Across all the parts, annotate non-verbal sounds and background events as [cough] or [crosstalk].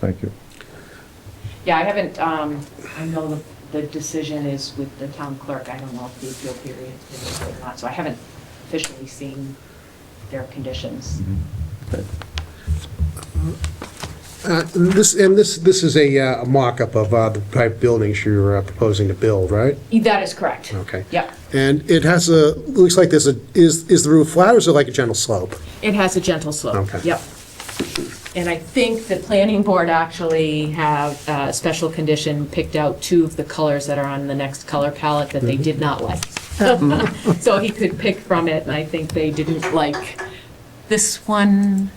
Thank you. Yeah, I haven't, um, I know the, the decision is with the town clerk. I don't know if the appeal period is or not, so I haven't officially seen their conditions. Uh, This, and this, this is a uh, a mock-up of uh, the type of buildings you're uh, proposing to build, right? That is correct. Okay. Yep. And it has a, looks like there's a, is, is the roof flat or is it like a gentle slope? It has a gentle slope. Okay. Yep. And I think the planning board actually have a special condition picked out two of the colors that are on the next color palette that Mm-hmm. they did not like. Mm-hmm. [laughs] So he could pick from it, and I think they didn't like this one.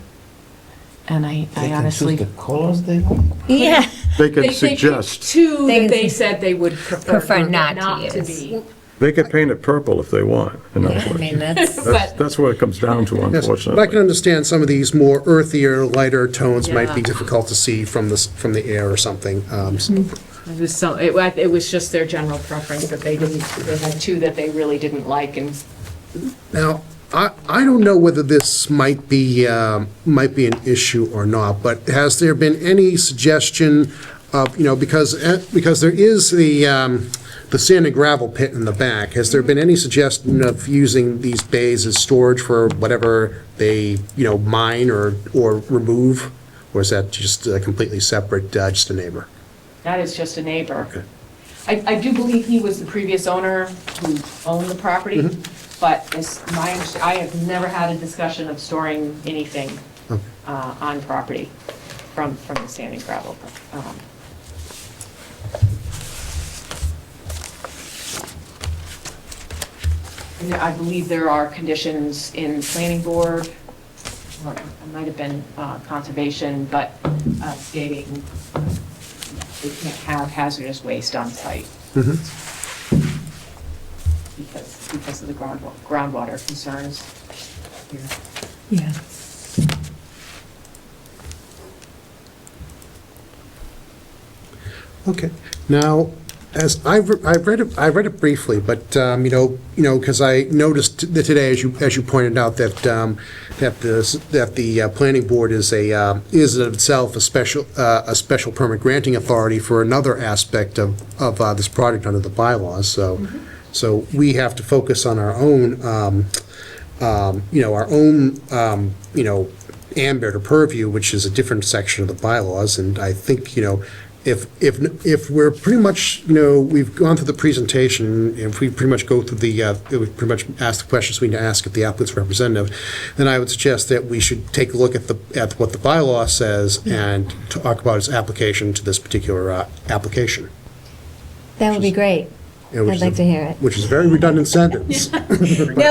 And I I honestly. the colors they like? Yeah. They They- could they picked suggest, Two They that can they su- said they would prefer prefer not not to to use. be. they could paint it purple if they want, in other [laughs] I words. mean, that's, That's, But- that's what it comes down to, Yes, But I can unfortunately. understand some of these more earthier, lighter tones might be Yeah. difficult to see from the, s- from the air or something. um, so- It was so, it wa- it was just their general preference that they didn't, they had two that they really didn't like, and Now, I, I don't know whether this might be, um, might be an issue or not, but has there been any suggestion of, you know, because, eh, because there is the, um, the sand and gravel pit in the back, has there been any suggestion of using these bays as storage for whatever they, you know, mine or, or remove? Or is that just uh, completely separate, uh, just a neighbor? that is just a neighbor. I, I do believe he was the previous owner who owned the property, but as my, under- I have never had a discussion of storing anything uh, on property from, from the sand and gravel. um, And I believe there are conditions in planning board, or it might have been uh, conservation, but uh, stating they can't have hazardous waste on site. Mm-hmm. Because, because of the groundwater, groundwater concerns here. yeah. Okay. Now, as I've, re- I've read it, I read it briefly, but, um, you know, you know, because I noticed that today, as you, as you pointed out, that, um, that the, s- that the uh, planning board is a, um, is in itself a special, uh, a special permit granting authority for another aspect of, of uh, this project under the bylaws, so, so we have to focus on our own, um, um, you know, our own, um, you know, ambit or purview, which is a different section of the bylaws, and I think, you know, if, if, if we're pretty much, you know, we've gone through the presentation, if we pretty much go through the, uh, we pretty much ask the questions we need to ask at the applicant's representative, then I would suggest that we should take a look at the, at what the bylaw says and talk about its application to this particular, uh, application. That would be great. you know, which I'd is like a- to hear it. Which is a very redundant sentence. No,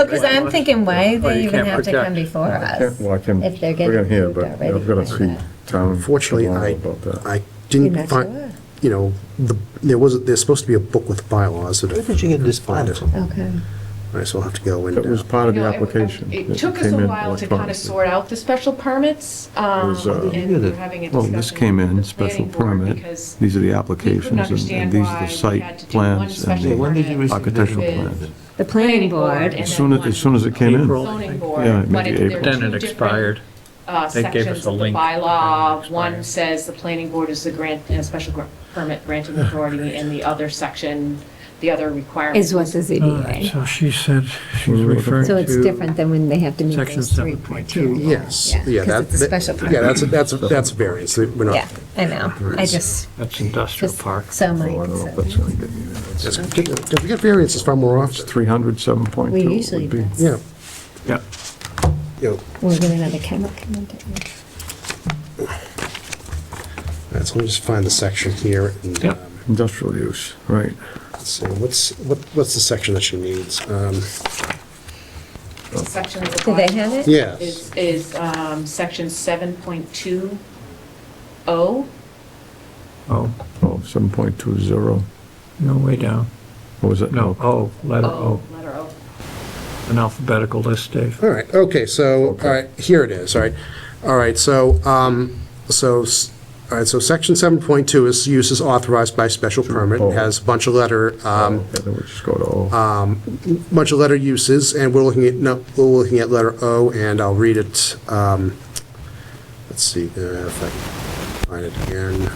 because I'm thinking, why do Well, they you even can't have to project. come before us? Well, I can, If they're we're gonna getting hear, approved but already. I'm gonna for see that. town Fortunately, I, tomorrow about that. I You're didn't not sure. find, you know, the, there was, there's supposed to be a book with bylaws that. Where did you get this Find from? it. Okay. I still have to go and. That was uh, part of the You know, it- application. It took us came a in while to kind electronically. of sort out the special permits, um, was, uh, and we were having a discussion. Well, this came with in, the special planning board permit, Because these are the we couldn't applications, and- understand and these are why the we had to site do one plans special and when did you permit the architectural with plans. The planning board. and As then soon as, one as soon as it came in, April. Zoning Yeah, board, maybe but it- there April. are Then two it different expired. uh, They gave us sections a of the link. bylaw. Expired. One says the planning board is the grant, uh, special gr- permit granting authority, and the other section, the other requirement. Is what the ZBA. So she said, she's We're looking- referring to. So it's different than when they have to meet Section those three point two. 7.2. Yes, yeah. that- Because it's a that- special Yeah, permit. that's, that's, that's variance, we're not. Yeah, I know. I just, That's industrial just park. so my Oh, I don't know if that's concern. gonna get me there. That's Do we get variances far more often? 300, 7.2 We would usually be- do. Yeah, yeah, you know, We're getting another chemical coming down. all right, so let me just find the section here. and, yeah, um, industrial use, right. So what's, what, what's the section that she needs? Um, Section of the Do they bylaw. have it? Yes, is, is um, section 7.20, Oh, Oh, 7.20, no, way down. what was it? Oh, No, O, letter O, Oh. O, letter O. an alphabetical list, Dave. all right, okay, so, all right, here it is, all right. All right, so, um, so, s- all right, so section 7.2 is uses authorized by special permit, Oh. has a bunch of letter, um, Okay, Then we just go to O. bunch of letter uses, and we're looking at, no, we're looking at letter O, and I'll read it, um, let's see, uh, if I, find it again.